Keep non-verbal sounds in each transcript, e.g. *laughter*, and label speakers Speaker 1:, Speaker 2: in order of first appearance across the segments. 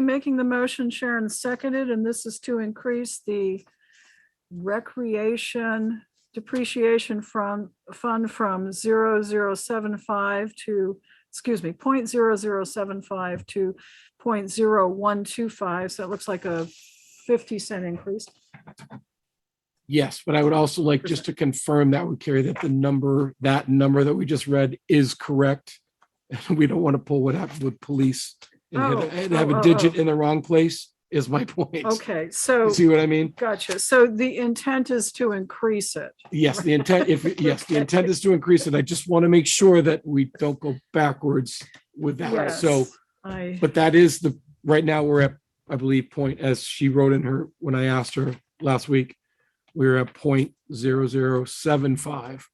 Speaker 1: making the motion, Sharon seconded, and this is to increase the recreation depreciation from, fund from zero zero seven five to, excuse me, point zero zero seven five to point zero one two five, so it looks like a fifty cent increase.
Speaker 2: Yes, but I would also like just to confirm that would carry that the number, that number that we just read is correct. *laughs* We don't want to pull what happened with police and
Speaker 1: Oh,
Speaker 2: have- and have
Speaker 1: oh, oh,
Speaker 2: a digit in the wrong place is my *laughs* point.
Speaker 1: Okay,
Speaker 2: You
Speaker 1: so,
Speaker 2: See what I mean?
Speaker 1: gotcha. So the intent is to increase it.
Speaker 2: Yes, the
Speaker 1: *laughs*
Speaker 2: intent, if, yes, the intent is to increase it. I just want to make sure that we don't go backwards with that. So,
Speaker 1: Yes, I,
Speaker 2: but that is the, right now, we're at, I believe, point, as she wrote in her, when I asked her last week, we were at point zero zero seven five.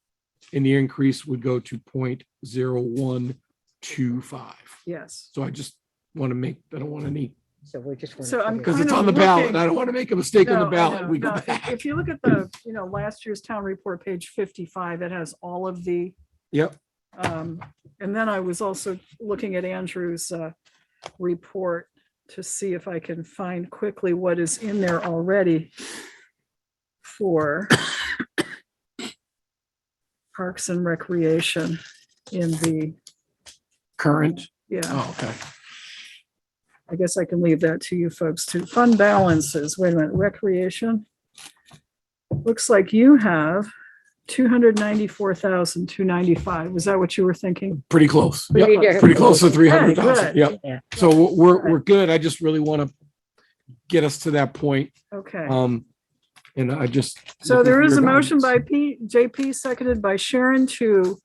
Speaker 2: And the increase would go to point zero one two five.
Speaker 1: yes.
Speaker 2: So I just want to make, I don't want any,
Speaker 3: So we just. wanna
Speaker 1: So I'm
Speaker 3: figure
Speaker 2: because
Speaker 3: out-
Speaker 2: it's
Speaker 1: Kind of
Speaker 2: on the ballot.
Speaker 1: looking-
Speaker 2: I don't want to make a mistake on
Speaker 1: No,
Speaker 2: the
Speaker 1: I
Speaker 2: ballot.
Speaker 1: know,
Speaker 2: We go
Speaker 1: no, if-
Speaker 2: back.
Speaker 1: If you look at the, you know, last year's town report, page fifty-five, it has all of the,
Speaker 2: Yep,
Speaker 1: um, and then I was also looking at Andrew's, uh, report to see if I can find quickly what is in there already for Parks and Recreation in the,
Speaker 2: current.
Speaker 1: yeah,
Speaker 2: Oh, okay.
Speaker 1: I guess I can leave that to you folks to fund balances. Wait a minute, recreation. Looks like you have two hundred ninety-four thousand, two ninety-five. Was that what you were thinking?
Speaker 2: Pretty close.
Speaker 3: We
Speaker 2: Yep,
Speaker 3: need to-
Speaker 2: pretty close to three
Speaker 1: Good,
Speaker 2: hundred thousand.
Speaker 1: good.
Speaker 2: Yep.
Speaker 3: Yeah.
Speaker 2: So we're- we're, we're good. I just really want to get us to that point.
Speaker 1: Okay.
Speaker 2: Um, and I just.
Speaker 1: So
Speaker 2: looking
Speaker 1: there
Speaker 2: for
Speaker 1: is a
Speaker 2: your
Speaker 1: motion
Speaker 2: guidance.
Speaker 1: by P, JP, seconded by Sharon to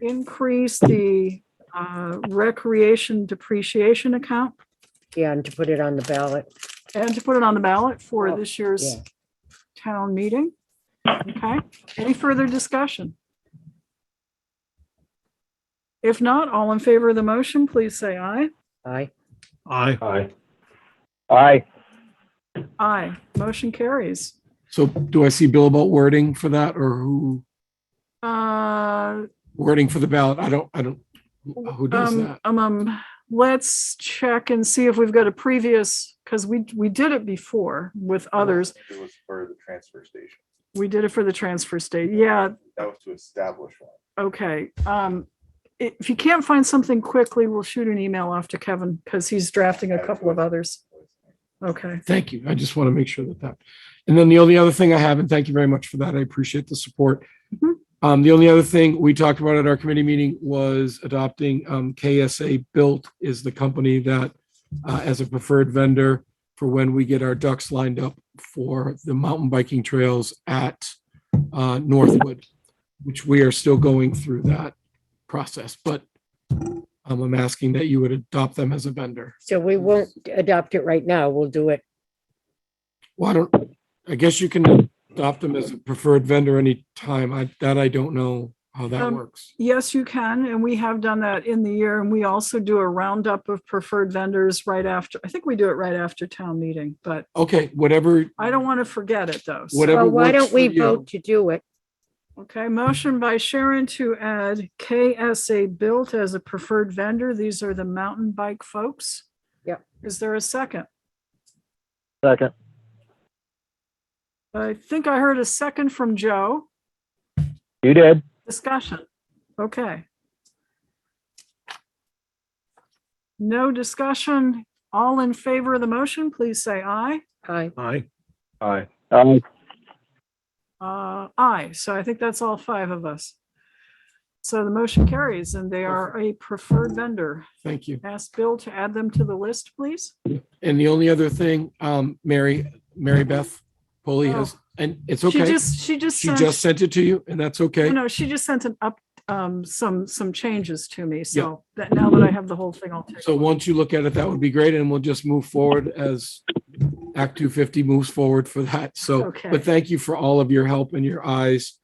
Speaker 1: increase the uh, recreation depreciation account
Speaker 3: Yeah, and to put it on the ballot.
Speaker 1: and to put it on the ballot for
Speaker 3: Oh,
Speaker 1: this year's
Speaker 3: yeah.
Speaker 1: town meeting. Okay, any further discussion? If not, all in favor of the motion, please say aye.
Speaker 3: Aye.
Speaker 2: Aye.
Speaker 4: Aye. Aye.
Speaker 1: Aye, motion carries.
Speaker 2: So do I see Bill about wording for that or who,
Speaker 1: Uh,
Speaker 2: wording for the ballot? I don't, I don't, who who does
Speaker 1: Um,
Speaker 2: that?
Speaker 1: um, um, let's check and see if we've got a previous, because we, we did it before with others.
Speaker 5: It was for the transfer station.
Speaker 1: We did it for the transfer state. Yeah,
Speaker 5: That was to establish one.
Speaker 1: okay. Um, i- if you can't find something quickly, we'll shoot an email off to Kevin because he's drafting a couple of others. Okay,
Speaker 2: Thank you. I just want to make sure that that. And then the only other thing I have, and thank you very much for that. I appreciate the support.
Speaker 1: Mhm.
Speaker 2: Um, the only other thing we talked about at our committee meeting was adopting, um, KSA Built is the company that uh, as a preferred vendor for when we get our ducks lined up for the mountain biking trails at uh, Northwood, which we are still going through that process, but um, I'm asking that you would adopt them as a vendor.
Speaker 3: So we won't adopt it right now. We'll do it.
Speaker 2: Well, I don't, I guess you can adopt them as a preferred vendor anytime. I, that I don't know how that
Speaker 1: Um,
Speaker 2: works.
Speaker 1: yes, you can. And we have done that in the year and we also do a roundup of preferred vendors right after. I think we do it right after town meeting, but
Speaker 2: Okay, whatever,
Speaker 1: I don't want to forget it though. so-
Speaker 2: whatever.
Speaker 3: Well, why
Speaker 2: works
Speaker 3: don't
Speaker 2: for
Speaker 3: we
Speaker 2: you.
Speaker 3: vote to do it?
Speaker 1: Okay, motion by Sharon to add KSA Built as a preferred vendor. These are the mountain bike folks.
Speaker 3: Yep.
Speaker 1: Is there a second?
Speaker 4: Second.
Speaker 1: I think I heard a second from Joe.
Speaker 4: You did.
Speaker 1: Discussion. Okay. No discussion. All in favor of the motion, please say aye.
Speaker 3: Aye.
Speaker 2: Aye.
Speaker 4: Aye. Aye.
Speaker 1: Uh, aye. So I think that's all five of us. So the motion carries and they are a preferred vendor.
Speaker 2: Thank you.
Speaker 1: Ask Bill to add them to the list, please.
Speaker 2: And the only other thing, um, Mary, Mary Beth Polly has, and it's
Speaker 1: She
Speaker 2: okay.
Speaker 1: just, she just
Speaker 2: She just
Speaker 1: sent,
Speaker 2: sent it to you and that's
Speaker 1: you
Speaker 2: okay.
Speaker 1: know, she just sent an up, um, some, some changes to me. So that now that I have the whole thing, I'll take.
Speaker 2: So once you look at it, that would be great. And we'll just move forward as Act two fifty moves forward for that. So,
Speaker 1: Okay.
Speaker 2: but thank you for all of your help and your eyes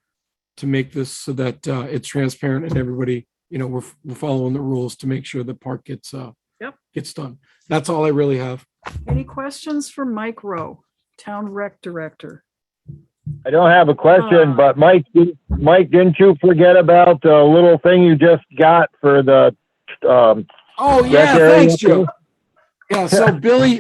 Speaker 2: to make this so that uh, it's transparent and everybody, you know, we're, we're following the rules to make sure the park gets, uh,
Speaker 1: Yep.
Speaker 2: gets done. That's all I really have.
Speaker 1: Any questions for Mike Rowe, Town Rec Director?
Speaker 4: I don't have a
Speaker 1: Uh.
Speaker 4: question, but Mike, didn't- Mike, didn't you forget about uh, the little thing you just got for the, um,
Speaker 2: Oh,
Speaker 4: yeah,
Speaker 2: yeah,
Speaker 4: Gary,
Speaker 2: thanks,
Speaker 4: thanks, Joe.
Speaker 2: Joe. Yeah, so Billy,